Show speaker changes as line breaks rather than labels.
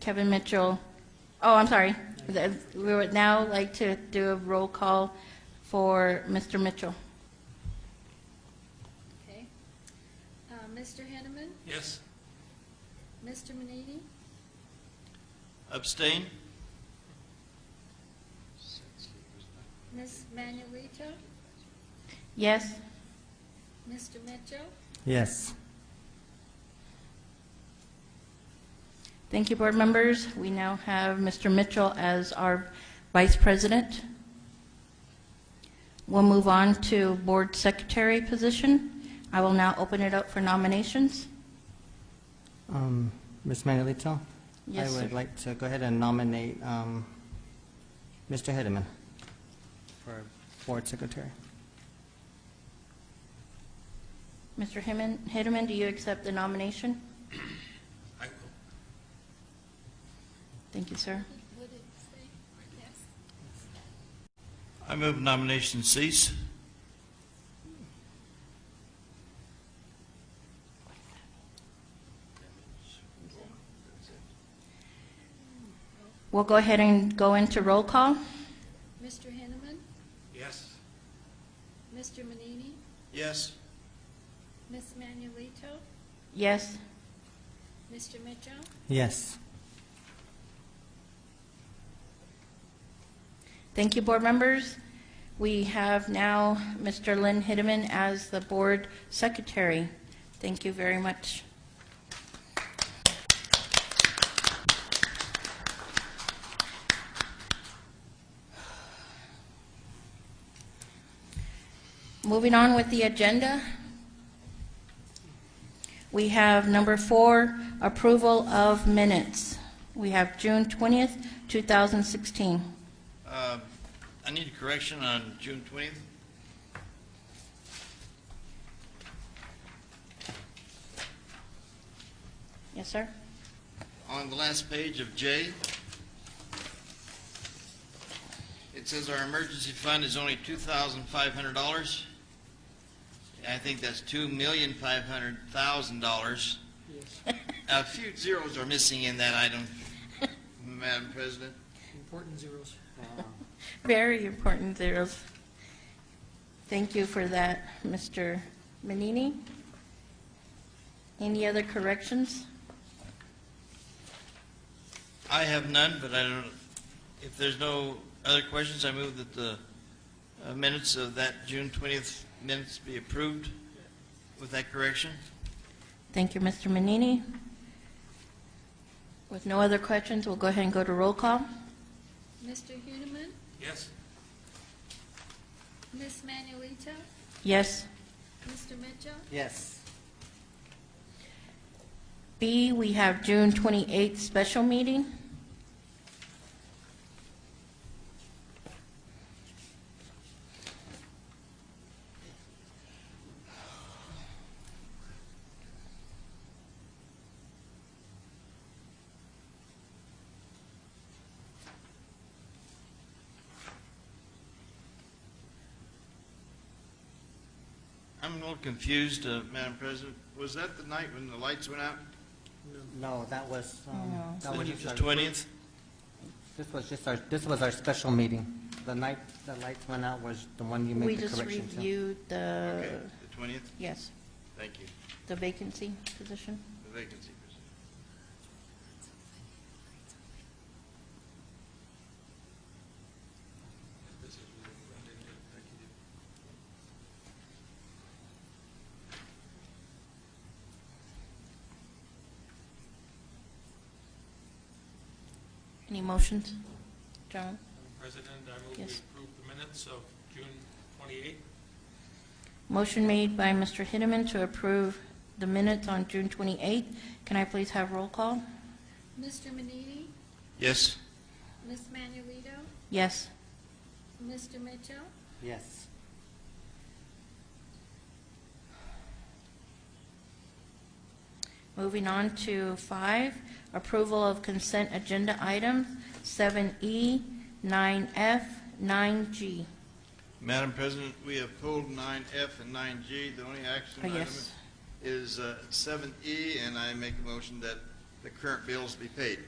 Kevin Mitchell. Oh, I'm sorry. The- We would now like to do a roll call for Mr. Mitchell.
Okay. Uh, Mr. Henneman,
Yes.
Mr. Manini,
Abstain?
Ms. Manuelito,
Yes?
Mr. Mitchell,
Yes.
Thank you, board members. We now have Mr. Mitchell as our vice president. We'll move on to board secretary position. I will now open it up for nominations.
Um, Ms. Manuelito?
Yes,
I
sir.
would like to go ahead and nominate um, Mr. Hedeman for board secretary.
Mr. Himan- Hideman, do you accept the nomination?
I will.
Thank you, sir.
would it say? Yes.
I move nomination cease.
We'll go ahead and go into roll call.
Mr. Henneman,
Yes.
Mr. Manini,
Yes.
Ms. Manuelito,
Yes?
Mr. Mitchell,
Yes.
Thank you, board members. We have now Mr. Lynn Hideman as the board secretary. Thank you very much. Moving on with the agenda, we have number four, approval of minutes. We have June 20th, 2016.
Uh, I need a correction on June 20th.
Yes, sir?
On the last page of J, it says our emergency fund is only $2,500. I think that's $2,500,000. A few zeros are missing in that item, Madam President.
Important zeros.
Very important zeros. Thank you for that, Mr. Manini. Any other corrections?
I have none, but I don't, if there's no other questions, I move that the uh, minutes of that June 20th minutes be approved with that correction.
Thank you, Mr. Manini. With no other questions, we'll go ahead and go to roll call.
Mr. Henneman,
Yes.
Ms. Manuelito,
Yes.
Mr. Mitchell,
Yes.
B, we have June 28th special meeting.
I'm a little confused, uh, Madam President. Was that the night when the lights went out?
No, that was, um,
No.
that was
The
just our,
20th?
this was just our, this was our special meeting. The night the lights went out was the one you
We
made the
just
correction to.
reviewed
Okay,
the,
the 20th.
yes,
Thank you.
the vacancy position.
The vacancy. was-
Any motions? John?
President, I move we
Yes.
approve the minutes of June 28th.
Motion made by Mr. Hideman to approve the minutes on June 28th. Can I please have roll call?
Mr. Manini,
Yes.
Ms. Manuelito,
Yes.
Mr. Mitchell,
Yes.
Moving on to five, approval of consent agenda items, E, 7E, 9F, 9G.
Madam President, we have pulled 9F and 9G. The only action
Oh,
item
yes.
E, is uh, 7E, and I make a motion that the current bills be paid.